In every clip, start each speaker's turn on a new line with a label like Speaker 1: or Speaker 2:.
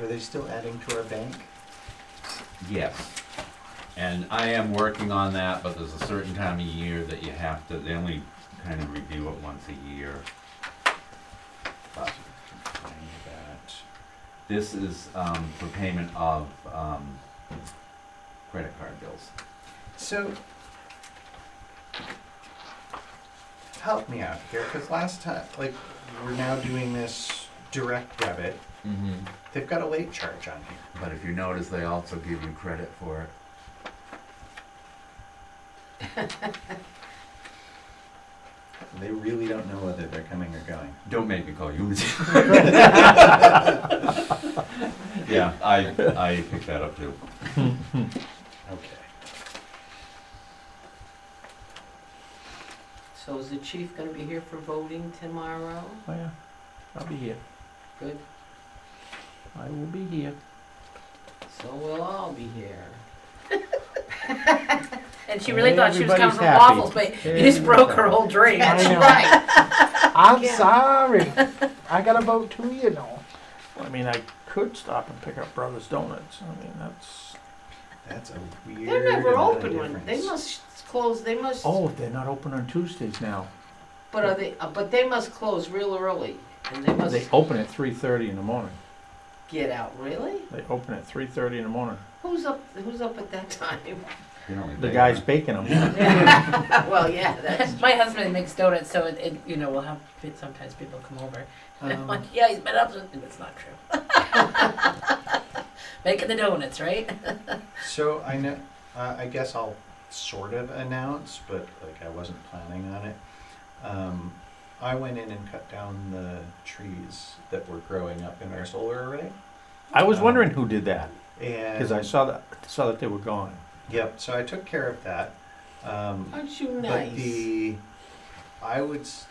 Speaker 1: Are they still adding to our bank?
Speaker 2: Yes. And I am working on that, but there's a certain time of year that you have to, they only kind of review it once a year. But, I need that. This is, um, for payment of, um, credit card bills.
Speaker 1: So, help me out here, because last time, like, we're now doing this direct debit.
Speaker 2: Mm-hmm.
Speaker 1: They've got a late charge on here.
Speaker 2: But if you notice, they also give you credit for it.
Speaker 1: They really don't know whether they're coming or going.
Speaker 2: Don't make me call you Lindsay. Yeah, I, I picked that up too.
Speaker 1: Okay.
Speaker 3: So is the chief gonna be here for voting tomorrow?
Speaker 4: Oh yeah, I'll be here.
Speaker 3: Good,
Speaker 4: I will be here.
Speaker 3: so we'll all be here.
Speaker 5: And she really thought she was
Speaker 4: Everybody's
Speaker 5: coming from
Speaker 4: happy.
Speaker 5: waffles, but you just broke her whole dream.
Speaker 4: I know.
Speaker 3: Right.
Speaker 4: I'm
Speaker 5: Yeah.
Speaker 4: sorry. I gotta vote too, you know. I mean, I could stop and pick up Brothers Donuts. I mean, that's.
Speaker 1: That's a weird.
Speaker 3: They're never
Speaker 1: amount of
Speaker 3: open when, they
Speaker 1: difference.
Speaker 3: must close, they must,
Speaker 4: Oh, they're not open on Tuesdays now.
Speaker 3: but are they, uh, but they must close real early. And they
Speaker 4: They
Speaker 3: must
Speaker 4: open at three thirty in the morning.
Speaker 3: get out, really?
Speaker 4: They open at three thirty in the morning.
Speaker 3: Who's up, who's up at that time?
Speaker 2: You don't need
Speaker 4: The
Speaker 2: that.
Speaker 4: guy's baking them.
Speaker 3: Well, yeah, that's,
Speaker 5: My husband makes donuts, so it, it you know we'll have sometimes people come over. And I'm
Speaker 1: Um,
Speaker 5: like, yeah, he's been up. since-" And it's not true. Making the donuts, right?
Speaker 1: So I know, uh, I guess I'll sort of announce, but like I wasn't planning on it. Um, I went in and cut down the trees that were growing up in our solar array.
Speaker 4: I was wondering who did that because
Speaker 1: And
Speaker 4: I saw that saw that they were gone.
Speaker 1: yep, so I took care of that. Um,
Speaker 3: aren't you
Speaker 1: But
Speaker 3: nice?
Speaker 1: the, I would s-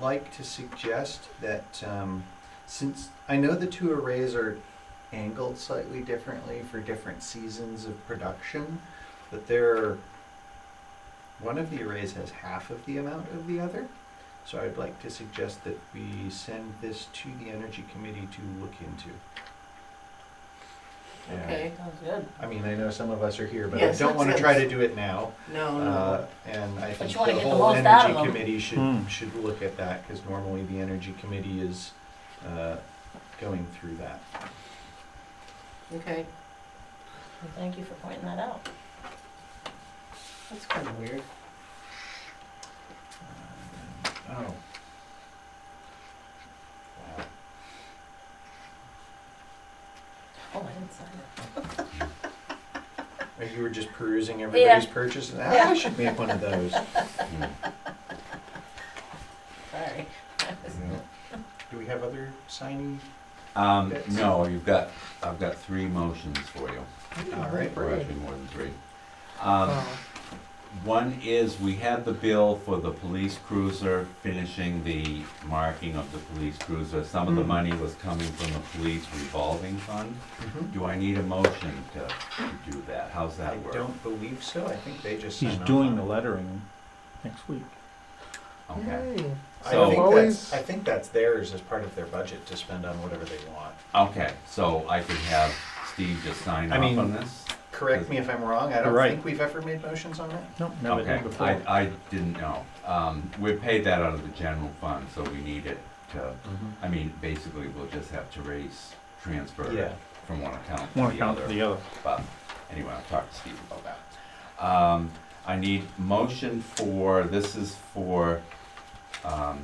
Speaker 1: like to suggest that um, since I know the two arrays are angled slightly differently for different seasons of production, but they're one of the arrays has half of the amount of the other. So I'd like to suggest that we send this to the energy committee to look into. Yeah.
Speaker 3: Okay,
Speaker 5: Sounds good.
Speaker 1: I mean, I know some of us are here, but I
Speaker 3: Yes,
Speaker 1: don't want to
Speaker 3: yes,
Speaker 1: try
Speaker 3: yes.
Speaker 1: to do it now.
Speaker 3: no, no.
Speaker 1: Uh, And I think
Speaker 5: you
Speaker 1: the
Speaker 5: wanna get the
Speaker 1: whole
Speaker 5: most out
Speaker 1: energy
Speaker 5: of 'em.
Speaker 1: committee should,
Speaker 4: Hmm.
Speaker 1: should look at that, because normally the energy committee is uh, going through that.
Speaker 3: Okay,
Speaker 5: Well, thank you for pointing that out.
Speaker 3: that's kind of weird.
Speaker 1: Uh, Oh. Wow.
Speaker 5: Oh, I didn't sign it.
Speaker 1: Oh, You were just perusing everybody's purchases? Ah, I should make one of those.
Speaker 2: Mm.
Speaker 5: Sorry.
Speaker 1: Do we have other signing?
Speaker 2: Um,
Speaker 1: Bits.
Speaker 2: no, you've got, I've got three motions for you,
Speaker 1: All right.
Speaker 2: or actually more than three. Um,
Speaker 4: Oh.
Speaker 2: one is, we had the bill for the police cruiser, finishing the marking of the police cruiser. Some of the
Speaker 1: Mhm.
Speaker 2: money was coming from the police revolving fund.
Speaker 4: Mm-hmm.
Speaker 1: Mhm.
Speaker 2: Do I need a motion to do that? How's
Speaker 1: I
Speaker 2: that work?
Speaker 1: don't believe so. I think they just.
Speaker 4: He's
Speaker 1: sign off
Speaker 4: doing
Speaker 1: on
Speaker 4: the
Speaker 1: it.
Speaker 4: lettering next week.
Speaker 2: Okay,
Speaker 1: I
Speaker 2: So-
Speaker 1: think that's,
Speaker 4: Always-
Speaker 1: I think that's theirs as part of their budget to spend on whatever they want.
Speaker 2: okay, so I could have Steve just sign
Speaker 4: I
Speaker 2: off
Speaker 4: mean,
Speaker 2: on this?
Speaker 1: Correct me if I'm wrong. I don't
Speaker 4: Right.
Speaker 1: think we've ever made motions on that.
Speaker 4: Nope, never
Speaker 2: Okay,
Speaker 4: did before.
Speaker 2: I, I didn't know. Um, we paid that out of the general fund, so we need it to,
Speaker 4: Mm-hmm.
Speaker 2: I mean, basically, we'll just have to raise, transfer
Speaker 1: Yeah.
Speaker 2: it from one account
Speaker 4: One
Speaker 2: to the
Speaker 4: account to
Speaker 2: other.
Speaker 4: the other.
Speaker 2: But anyway, I'll talk to Steve about that. Um, I need motion for, this is for, um,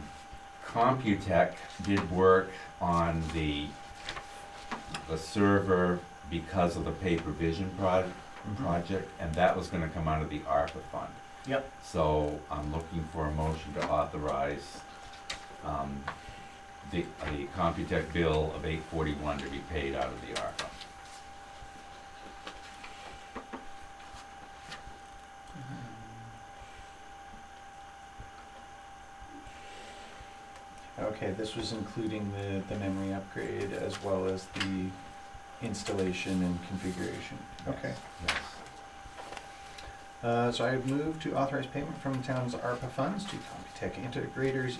Speaker 2: Computech did work on the, the server because of the paper vision prod,
Speaker 1: Mm-hmm.
Speaker 2: project, and that was gonna come out of the ARPA fund.
Speaker 1: Yep.
Speaker 2: So I'm looking for a motion to authorize, um, the, the Computech bill of eight forty-one to be paid out of the ARPA.
Speaker 1: Okay, this was including the, the memory upgrade as well as the installation and configuration. Okay.
Speaker 2: Yes.
Speaker 1: Uh, so I would move to authorize payment from the town's ARPA funds to Computech Integrators